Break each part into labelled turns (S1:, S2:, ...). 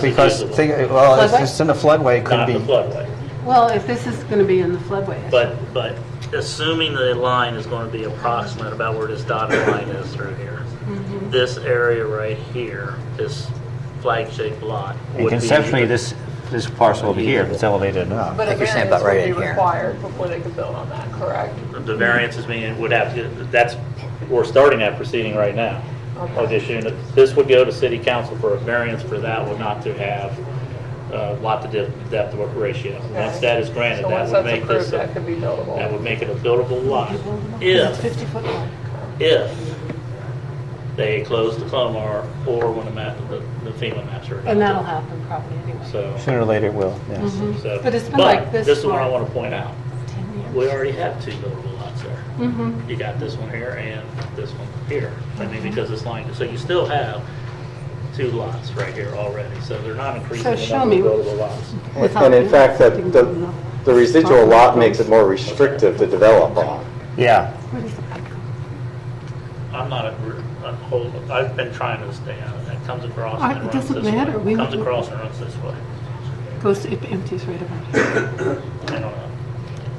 S1: because,
S2: visible.
S1: think- well, if
S3: Floodway?
S1: it's in the floodway, it could
S2: not the
S1: be,
S2: floodway.
S3: Well, if this is going to be in the floodway. I
S2: But, but assuming the line is going to be approximate about where this dotted line is through here,
S4: Mm-hmm.
S2: this area right here, this flag-shaped lot.
S5: And
S2: would be-
S5: conceptually, this, this parcel over here, if it's elevated enough.
S4: But
S6: Like
S4: a
S6: you're saying
S4: variance
S6: about right
S4: would be
S6: in here.
S4: required before they could build on that, correct?
S2: The variance is meaning it would have to, that's, we're starting that proceeding right now. Of this unit, this would go to city council for a variance for that one not to have uh, lot to depth- depth ratio. Once that is granted, that
S4: So once
S2: would
S4: that's
S2: make this,
S4: approved,
S2: a-
S4: that could be buildable.
S2: that would make it a buildable lot.
S3: think. It's
S2: If,
S3: 50 foot long.
S2: if they close the FOMAR or when the map, the the FEMA maps are.
S3: And that'll happen probably anyway.
S2: So.
S5: Sooner or later it will,
S7: Mm-hmm.
S5: yes.
S2: so-
S3: But it's been like this
S2: This is what I
S3: for-
S2: want to point out.
S3: 10 years.
S2: We already have two buildable lots there.
S3: Mhm.
S2: You got this one here and this one here. I
S3: Mm-hmm.
S2: mean, because it's lined, so you still have two lots right here already, so they're not increasing the
S3: show
S2: number
S3: me-
S2: of buildable lots.
S8: And in fact, that, the the residual lot makes it more restrictive to develop on.
S5: Yeah,
S2: I'm not, a- I'm whole- I've been trying to stay out of that. Comes across
S3: I-
S2: and
S3: it
S2: runs this
S3: doesn't
S2: way.
S3: matter. We-
S2: Comes across and runs this way.
S3: Goes, it empties right about here.
S2: I don't know.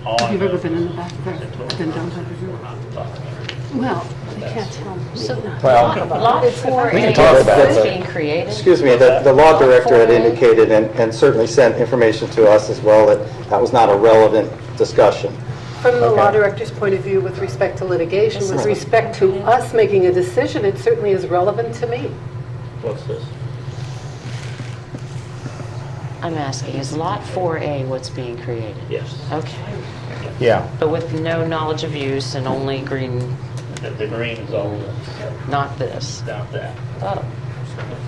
S2: All I
S3: Have you
S2: know
S3: ever been in
S2: is
S3: the back there?
S2: it's
S3: Been down
S2: towards-
S3: by the
S2: we're
S3: river?
S2: not talking about it.
S3: Well, I can't tell.
S7: So
S5: Well-
S7: lot lot 4A
S8: We can talk about
S7: is
S8: that.
S7: being created.
S8: Excuse me, the, the law director had indicated and and certainly sent information to us as well that that was not a relevant discussion.
S3: From the law
S8: Okay.
S3: director's point of view, with respect to litigation, with respect to us making a decision, it certainly is relevant to me.
S2: What's this?
S7: I'm asking, is Lot 4A what's being created?
S2: Yes.
S7: Okay,
S5: yeah.
S7: but with no knowledge of use and only green,
S2: The- The green is all
S7: not this.
S2: down that.
S7: Oh,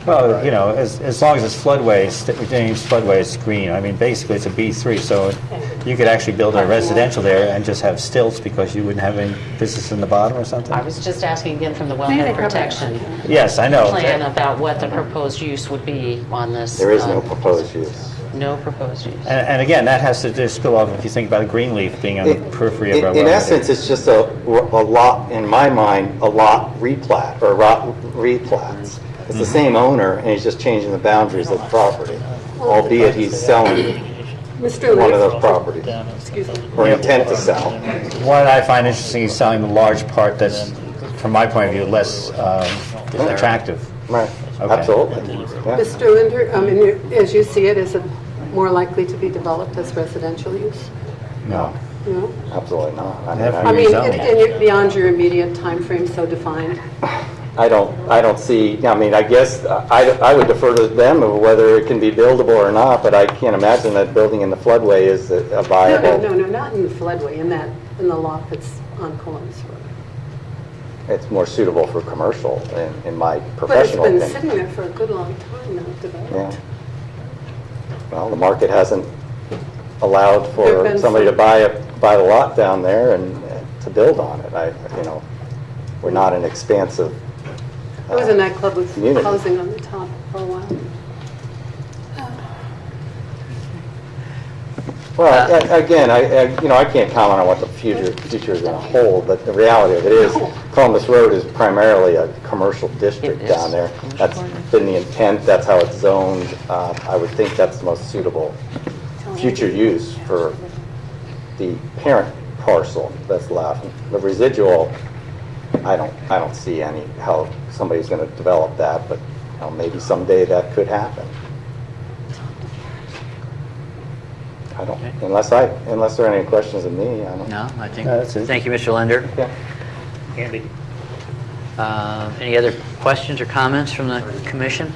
S5: Well, you know, as, as long as it's floodway, st- James floodway is green. I mean, basically, it's a B3, so you could actually build a residential there and just have stilts because you wouldn't have any business in the bottom or something?
S7: I was just asking again from the
S3: Maybe
S7: wellhead
S3: they
S7: protection
S5: Yes, I know.
S7: plan about what the proposed use would be on this.
S8: There is
S7: uh,
S8: no proposed use.
S7: No proposed use.
S5: And, and again, that has to just spill off, if you think about the green leaf being on the periphery of
S8: In-
S5: our
S8: In
S5: wellhead.
S8: essence, it's just a, a lot, in my mind, a lot replat, or lot replats. It's the
S5: Mm-hmm.
S8: same owner, and he's just changing the boundaries of the property, albeit he's selling
S3: Mr.
S8: one
S3: Lee,
S8: of those properties,
S3: excuse me.
S8: or intent to sell.
S5: What I find interesting is selling the large part that's, from my point of view, less um, attractive.
S8: Right,
S5: Okay.
S8: absolutely. Yeah.
S3: Mr. Linder, I mean, you- as you see it, is it more likely to be developed as residential use?
S5: No.
S3: No?
S8: Absolutely not. I mean,
S5: Therefore,
S3: I
S8: I-
S3: mean,
S5: Rezone.
S3: it- and you're beyond your immediate time frame so defined.
S8: I don't, I don't see, I mean, I guess, uh, I, I would defer to them of whether it can be buildable or not, but I can't imagine that building in the floodway is a
S3: No, no,
S8: viable.
S3: no, no, not in the floodway, in that, in the lot that's on Columbus Road.
S8: It's more suitable for commercial, in, in my
S3: But it's
S8: professional
S3: been
S8: opinion.
S3: sitting there for a good long time now, developed.
S8: Yeah. Well, the market hasn't allowed
S3: There've
S8: for
S3: been
S8: somebody to
S3: some-
S8: buy a, buy a lot down there and uh, to build on it. I, you know, we're not an expansive. uh,
S3: I was in that club with
S8: Community.
S3: housing on the top for a while.
S8: Well,
S7: Uh,
S8: a- again, I, I- you know, I can't comment on what the future, future is going to hold, but the reality of it is Columbus Road is primarily a commercial district
S7: It
S8: down
S7: is.
S8: there. That's been the intent, that's how it's zoned. Uh, I would think that's the most suitable future use for the parent parcel that's left. The residual, I don't, I don't see any, how somebody's going to develop that, but you know, maybe someday that could happen. I don't, unless I, unless there are any questions of me, I don't.
S6: No, I think,
S5: No, that's it.
S6: thank you, Mr. Linder.
S8: Yeah.
S2: Andy?
S6: Uh, Any other questions or comments from the commission?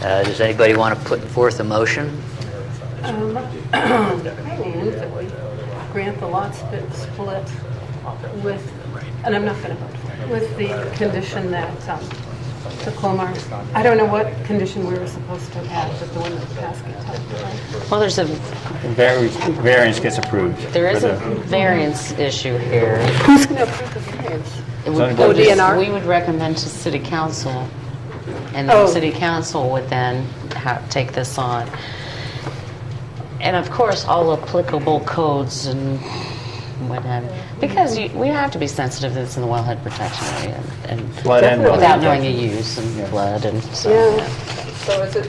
S6: Uh, Does anybody want to put forth a motion?
S3: Um, I mean, that we grant the lot split split with, and I'm not going to vote, for it, with the condition that um, the Colmar, I don't know what condition we were supposed to have, but the one that Pascal
S7: Well, there's a,
S5: Vari- Variance gets approved.
S7: there is
S5: for
S7: a
S5: the-
S7: variance issue here.
S3: Who's going to approve the variance?
S7: It
S5: Zoning
S7: would go
S5: board.
S7: to-
S3: DNR?
S7: We would recommend to city council, and
S3: Oh.
S7: then city council would then ha take this on. And of course, all applicable codes and what have you, because you- we have to be sensitive to this in the wellhead protection area and- and
S5: Flood and
S7: without
S5: wellhead.
S7: knowing a use and flood and so.
S3: Yeah.
S4: So is it